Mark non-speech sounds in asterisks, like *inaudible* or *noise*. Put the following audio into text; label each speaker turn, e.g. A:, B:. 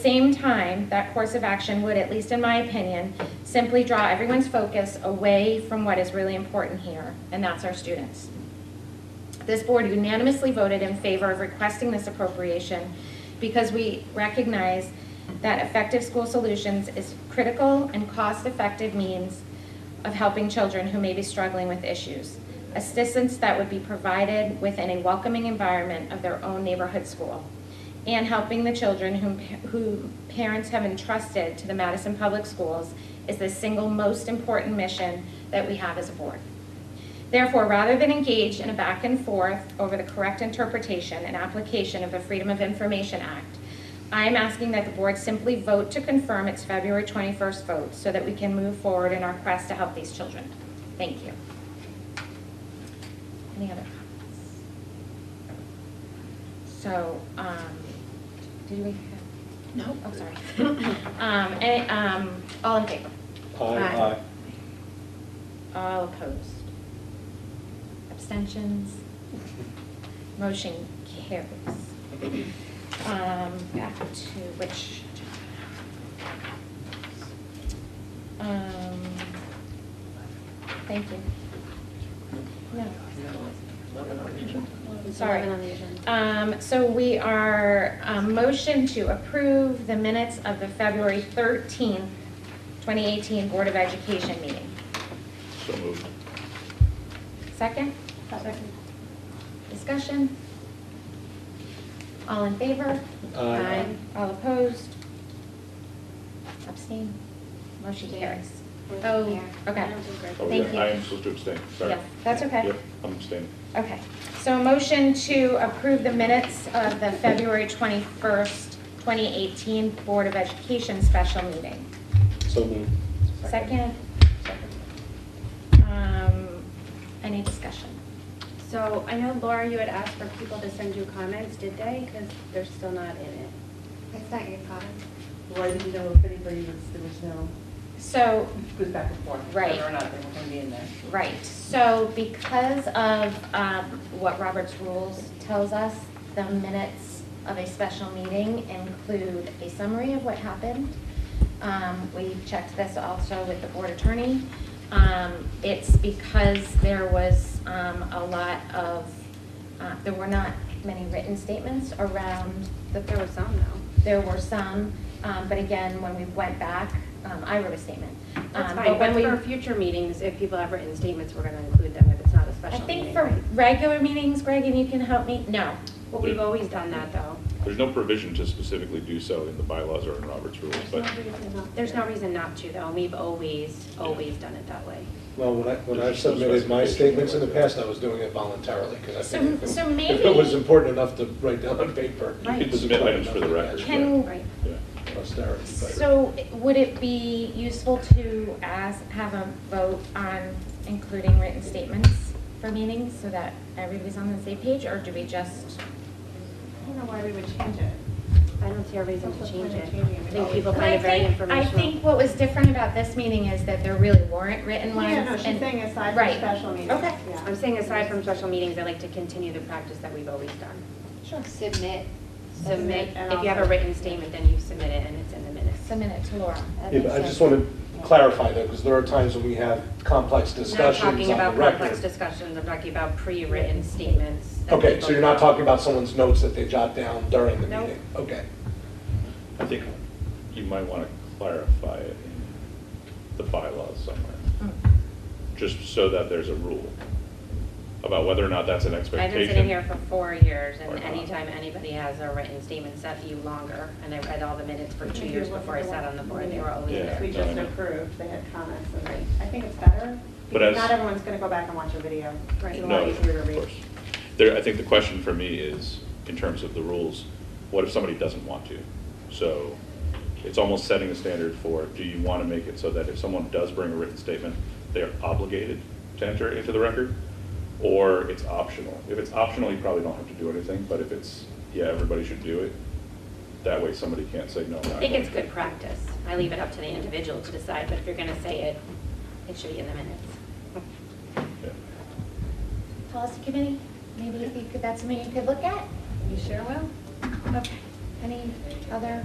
A: same time, that course of action would, at least in my opinion, simply draw everyone's focus away from what is really important here, and that's our students. This board unanimously voted in favor of requesting this appropriation because we recognize that effective school solutions is critical and cost-effective means of helping children who may be struggling with issues. Assistance that would be provided within a welcoming environment of their own neighborhood school. And helping the children whom, who parents have entrusted to the Madison Public Schools is the single most important mission that we have as a board. Therefore, rather than engage in a back and forth over the correct interpretation and application of the Freedom of Information Act, I am asking that the board simply vote to confirm its February 21st vote so that we can move forward in our quest to help these children. Thank you. Any other comments? So, um, did we have? No. Oh,
B: Oh,
A: I'm
B: *coughs*
A: sorry. *coughs* Um, any- um, all in favor? Aye. All opposed? Abstentions? Motion carries. Um, back to which? Um, thank you. No, sorry.
B: Eleven on the agenda.
A: Um, so we are, um, motion to approve the minutes of the February thirteenth, twenty eighteen Board of Education meeting.
C: So moved.
A: Second? Second. Discussion? All in favor?
C: Aye.
A: All opposed? Abstain? Motion
B: Yeah.
A: carries.
B: We're
A: Oh,
B: there. I
A: okay.
B: don't think we're-
C: Oh,
A: Thank you.
C: yeah, I am supposed to abstain, sorry.
A: Yeah, that's okay.
C: Yep, I'm abstaining.
A: Okay. So a motion to approve the minutes of the February 21st, 2018 Board of Education special meeting.
C: So moved.
A: Second? Um, Any discussion?
B: So I know Laura, you had asked for people to send you comments, did they? Because they're still not in it.
D: It's not your problem.
E: Well, I didn't know if anybody was, there was no,
A: So
E: it goes back and forth,
A: Right.
E: whether or not they were gonna be in there.
A: Right, so because of um, what Robert's rules tells us, the minutes of a special meeting include a summary of what happened. Um, We checked this also with the board attorney. Um, It's because there was um, a lot of, uh, there were not many written statements around the
B: But there was some though.
A: there were some, um, but again, when we went back, um, I wrote a statement.
B: That's
A: Um,
B: fine,
A: when
B: but
A: we-
B: for future meetings, if people have written statements, we're gonna include them if it's not a
A: I
B: special
A: think
B: meeting,
A: for
B: right?
A: regular meetings, Greg, and you can help me, no.
B: Well, we've always done that though.
C: There's no provision to specifically do so in the bylaws or in Robert's rules, but
B: There's no reason not to though, and we've always, always done it that way.
F: Well, when I, when I
C: There's no
F: submitted my
C: specification.
F: statements in the past, I was doing it voluntarily, because I
A: So-
F: think if
A: so
F: it- if
A: maybe-
F: it was important enough to write down on paper.
B: Right.
C: you can submit items for the record.
A: Can-
B: Right.
C: Yeah.
F: but Posterity. but-
A: So would it be useful to ask, have a vote on including written statements for meetings so that everybody's on the same page, or do we just?
D: I don't know why we would change it.
B: I don't see a reason to
D: What's the
B: change
D: point
B: it.
D: of changing it?
B: I think people
A: But
B: find
A: I
B: it very
A: think, I
B: informational.
A: think what was different about this meeting is that there really weren't written ones.
D: Yeah, no, she's
A: and-
D: saying aside
A: Right.
D: from special meetings.
A: Okay.
D: yeah.
B: I'm saying aside from special meetings, I like to continue the practice that we've always done.
A: Sure,
G: submit.
B: Submit,
D: And
B: if you have a
D: also-
B: written statement, then you submit it and it's in the minutes.
A: submit it to Laura.
G: That
F: Yeah,
G: makes
F: but I just
G: sense.
F: want to clarify that, because there are times when we have complex
B: I'm
F: discussions on the record.
B: Not talking about complex discussions, I'm talking about pre-written statements. that
F: Okay,
B: people-
F: so you're not talking about someone's notes that they jot down during the
B: Nope.
F: meeting? Okay.
C: I think you might want to clarify it in the bylaws somewhere,
A: Mm.
C: just so that there's a rule about whether or not that's an
B: I've
C: expectation.
B: been sitting here for four years,
C: Or
B: and
C: not.
B: anytime anybody has a written statement, it's up to you longer, and I read all the minutes for two
D: Maybe
B: years
D: it wasn't
B: before I sat on the board, they were always
C: Yeah.
B: there.
D: We just
C: no, I know.
D: approved, they had comments, and
B: Right.
D: I think it's better.
C: But
D: because
C: as-
D: Not everyone's gonna go back and watch a video.
B: Right.
D: It's a
C: No,
D: lot easier to
C: of
D: read.
C: course. There, I think the question for me is, in terms of the rules, what if somebody doesn't want to? So it's almost setting a standard for, do you want to make it so that if someone does bring a written statement, they're obligated to enter it into the record? Or it's optional? If it's optional, you probably don't have to do anything, but if it's, yeah, everybody should do it, that way somebody can't say, no, I'm not
B: I think
C: going
B: it's
C: to."
B: good practice. I leave it up to the individual to decide, but if you're gonna say it, it should be in the minutes. *laughs*
C: Yeah.
A: Policy committee, maybe if you could, that's something you could look at?
B: You sure will?
A: Okay, any other